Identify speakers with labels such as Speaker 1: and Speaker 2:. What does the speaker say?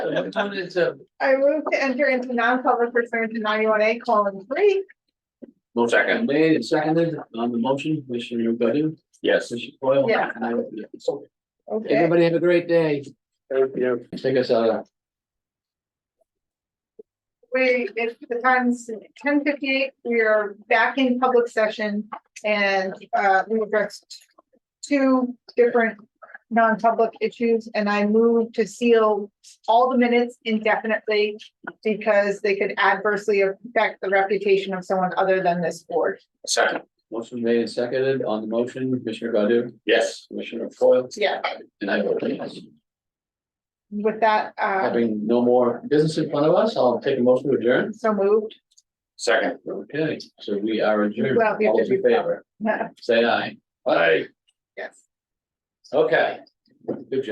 Speaker 1: What time is it?
Speaker 2: I move to enter into non-public pursuant to ninety-one A colon three.
Speaker 1: Motion Made and seconded on the motion, Commissioner Godu? Yes. Commissioner Foil?
Speaker 2: Yeah.
Speaker 1: And I vote yes.
Speaker 2: Okay.
Speaker 1: Everybody have a great day. Thank you. Take us uh, out. of-
Speaker 2: We, it's the time's ten fifty-eight, we are back in public session and uh we addressed. Two different non-public issues and I moved to seal all the minutes indefinitely. Because they could adversely affect the reputation of someone other than this board.
Speaker 3: Second,
Speaker 1: Motion made and seconded on the motion, Commissioner Godu?
Speaker 3: yes.
Speaker 1: Commissioner Foil?
Speaker 2: Yeah,
Speaker 1: And I vote yes.
Speaker 2: with that, uh,
Speaker 1: Having no more business in front of us, I'll take a motion to adjourn.
Speaker 2: so moved.
Speaker 3: Second,
Speaker 1: Okay, so we are adjourned.
Speaker 2: Well, we have
Speaker 1: All
Speaker 2: to
Speaker 1: those in
Speaker 2: do-
Speaker 1: favor, say aye.
Speaker 3: aye.
Speaker 2: Yes.
Speaker 1: Okay. Good job.